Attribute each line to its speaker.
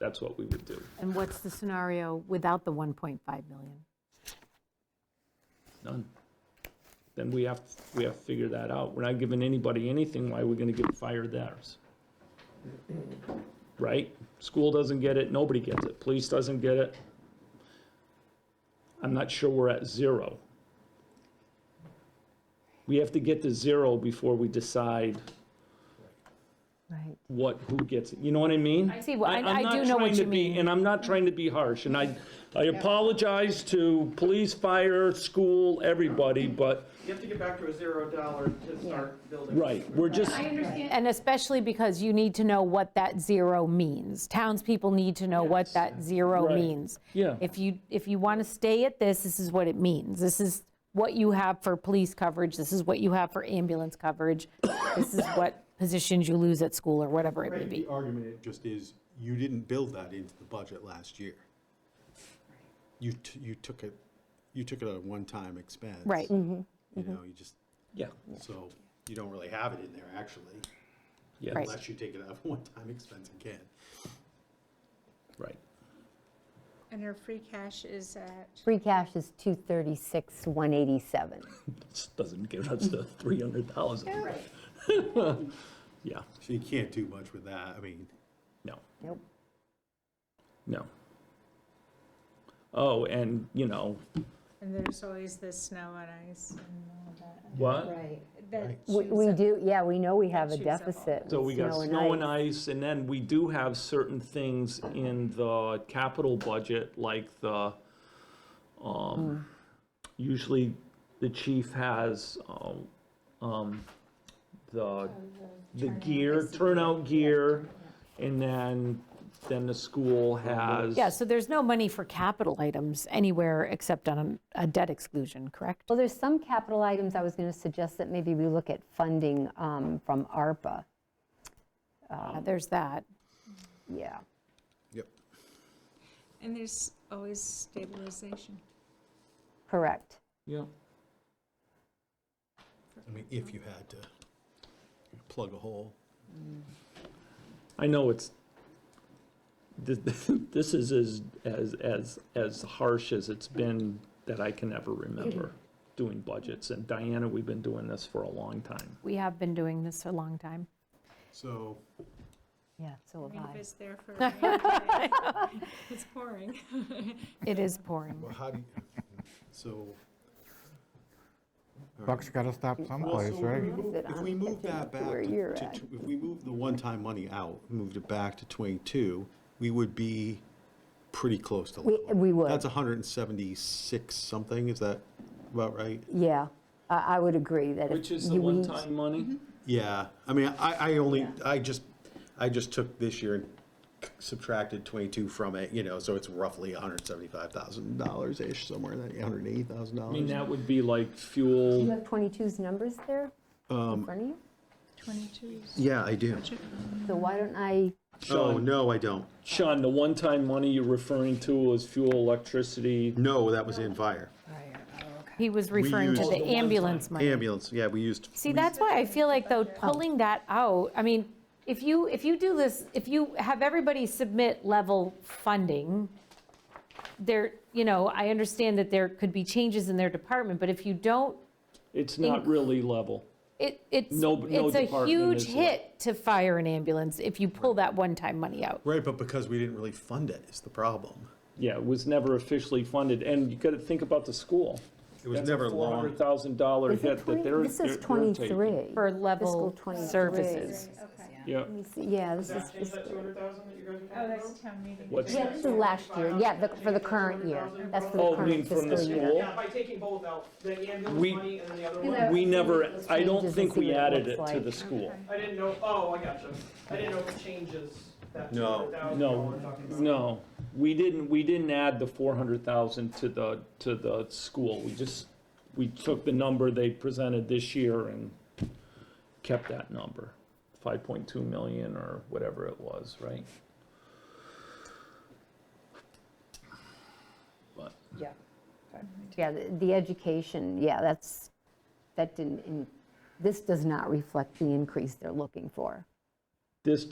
Speaker 1: That's what we would do.
Speaker 2: And what's the scenario without the 1.5 million?
Speaker 1: None. Then we have, we have to figure that out. We're not giving anybody anything, why are we gonna give fire theirs? Right? School doesn't get it, nobody gets it, police doesn't get it. I'm not sure we're at zero. We have to get to zero before we decide
Speaker 2: Right.
Speaker 1: what, who gets it, you know what I mean?
Speaker 2: see, well, I-
Speaker 1: I'm
Speaker 2: I
Speaker 1: not
Speaker 2: do know what
Speaker 1: trying to
Speaker 2: you
Speaker 1: be-
Speaker 2: mean.
Speaker 1: And I'm not trying to be harsh, and I, I apologize to police, fire, school, everybody, but,
Speaker 3: You have to get back to a zero dollar to start building.
Speaker 1: right, we're just,
Speaker 4: I understand,
Speaker 2: And especially because you need to know what that zero means. Townspeople need to know what that zero
Speaker 1: Right.
Speaker 2: means.
Speaker 1: Yeah.
Speaker 2: If you, if you want to stay at this, this is what it means. This is what you have for police coverage, this is what you have for ambulance coverage, this is what positions you lose at school, or whatever it may be.
Speaker 5: The argument it just is, you didn't build that into the budget last year. You, t- you took it, you took it at a one-time expense.
Speaker 2: Right.
Speaker 5: You know, you just,
Speaker 1: yeah,
Speaker 5: so you don't really have it in there, actually,
Speaker 1: yeah,
Speaker 2: Right.
Speaker 5: unless you take it out of one-time expense again.
Speaker 1: right.
Speaker 4: and our free cash is at,
Speaker 6: Free cash is 236, 187.
Speaker 1: This Doesn't give us the three hundred thousand. Yeah,
Speaker 5: So you can't do much with that, I mean,
Speaker 1: no.
Speaker 6: Nope.
Speaker 1: No. Oh, and, you know,
Speaker 4: and there's always the snow and ice and all that.
Speaker 1: what?
Speaker 4: That
Speaker 6: We
Speaker 4: shoots
Speaker 6: we
Speaker 4: up.
Speaker 6: do, yeah, we know we have a
Speaker 4: shoots up all
Speaker 6: deficit.
Speaker 1: So
Speaker 6: with
Speaker 1: we got snow and ice, and then we do have certain things in the capital budget, like the, um, usually the chief has, um, um, the, the gear, turnout gear, and then, then the school has.
Speaker 2: Yeah, so there's no money for capital items anywhere except on a debt exclusion, correct?
Speaker 6: Well, there's some capital items I was going to suggest that maybe we look at funding um, from ARPA.
Speaker 2: Uh, There's that.
Speaker 6: Yeah.
Speaker 5: yep,
Speaker 4: And there's always stabilization.
Speaker 6: Correct.
Speaker 1: Yeah.
Speaker 5: I mean, if you had to plug a hole.
Speaker 1: I know it's, th- this is as, as, as, as harsh as it's been that I can ever remember
Speaker 6: Mm-hmm.
Speaker 1: doing budgets. And Diana, we've been doing this for a long time.
Speaker 2: We have been doing this a long time.
Speaker 5: So,
Speaker 6: Yeah, so
Speaker 4: I mean,
Speaker 6: have
Speaker 4: if
Speaker 6: I.
Speaker 4: it's there for, a rainy day, it's pouring.
Speaker 2: It is pouring.
Speaker 5: well, how do you, so.
Speaker 7: Buck's got to stop
Speaker 5: Well,
Speaker 7: someplace,
Speaker 5: so
Speaker 7: right?
Speaker 5: If we move-
Speaker 6: Sit
Speaker 5: if
Speaker 6: on
Speaker 5: we
Speaker 6: it,
Speaker 5: move
Speaker 6: get you
Speaker 5: that
Speaker 6: up to
Speaker 5: back,
Speaker 6: where you're
Speaker 5: to-
Speaker 6: at.
Speaker 5: to- if we move the one-time money out, moved it back to 22, we would be pretty close to
Speaker 6: We-
Speaker 5: level.
Speaker 6: we would.
Speaker 5: That's 176 something, is that about right?
Speaker 6: Yeah, I I would agree that. if
Speaker 1: Which is the
Speaker 6: you- we-
Speaker 1: one-time
Speaker 6: Mm-hmm.
Speaker 1: money?
Speaker 5: Yeah, I mean, I, I only, I just, I just took this year and subtracted 22 from it, you know, so it's roughly $175,000-ish, somewhere in that,
Speaker 1: I mean,
Speaker 5: $180,000.
Speaker 1: that would be like
Speaker 6: Do you
Speaker 1: fuel,
Speaker 6: have 22's numbers there
Speaker 1: Um,
Speaker 6: in front of you?
Speaker 4: Twenty-two.
Speaker 5: Yeah, I do.
Speaker 6: So why don't I,
Speaker 5: Oh,
Speaker 1: Sean,
Speaker 5: no, I don't.
Speaker 1: Sean, the one-time money you're referring to was fuel, electricity,
Speaker 5: No, that was in fire.
Speaker 2: He was referring to
Speaker 5: used-
Speaker 2: the ambulance money.
Speaker 5: Ambulance, yeah, we used.
Speaker 2: See, that's why I feel like though
Speaker 4: Oh.
Speaker 2: pulling that out, I mean, if you, if you do this, if you have everybody submit level funding, there, you know, I understand that there could be changes in their department, but if you don't,
Speaker 1: it's not really level.
Speaker 2: it, it's,
Speaker 1: No- no
Speaker 2: it's a
Speaker 1: department
Speaker 2: huge
Speaker 1: is left.
Speaker 2: hit to fire an ambulance if you pull that one-time money out.
Speaker 5: Right, but because we didn't really fund it is the problem.
Speaker 1: Yeah, it was never officially funded, and you gotta think about the school.
Speaker 5: It was never
Speaker 1: Four
Speaker 5: long.
Speaker 1: hundred thousand dollar
Speaker 6: is it
Speaker 1: hit
Speaker 6: 20?
Speaker 1: that they're.
Speaker 6: This is
Speaker 1: they're- they're taking.
Speaker 6: 23.
Speaker 2: For
Speaker 6: Fiscal
Speaker 2: level
Speaker 6: 23.
Speaker 2: services.
Speaker 1: Yeah,
Speaker 6: Let me see. Yeah, this is
Speaker 3: That, is
Speaker 6: fiscal.
Speaker 3: that two hundred thousand that you guys are talking
Speaker 4: Oh,
Speaker 3: about?
Speaker 4: that's town meeting.
Speaker 1: What's-
Speaker 6: Yeah, this is last year, yeah, the- for the current year. That's for
Speaker 1: Oh,
Speaker 6: the
Speaker 1: you mean
Speaker 6: current
Speaker 1: from the
Speaker 6: fiscal year.
Speaker 1: school?
Speaker 3: Yeah, by taking both out, the
Speaker 1: We-
Speaker 3: ambulance money and the other
Speaker 6: You
Speaker 3: one,
Speaker 6: know-
Speaker 1: we never, I don't
Speaker 6: Changes
Speaker 1: think
Speaker 6: to see
Speaker 1: we
Speaker 6: what it
Speaker 1: added it
Speaker 6: looks
Speaker 1: to
Speaker 6: like.
Speaker 1: the school.
Speaker 3: I didn't know, oh, I gotcha. I didn't know if it changes that two
Speaker 5: No.
Speaker 3: hundred thousand
Speaker 1: No,
Speaker 3: we're talking about.
Speaker 1: no, we didn't, we didn't add the four hundred thousand to the, to the school. We just, we took the number they presented this year and kept that number. Five point two million or whatever it was, right? But,
Speaker 6: Yeah, the- the education, yeah, that's, that didn't, in- this does not reflect the increase they're looking for.
Speaker 1: this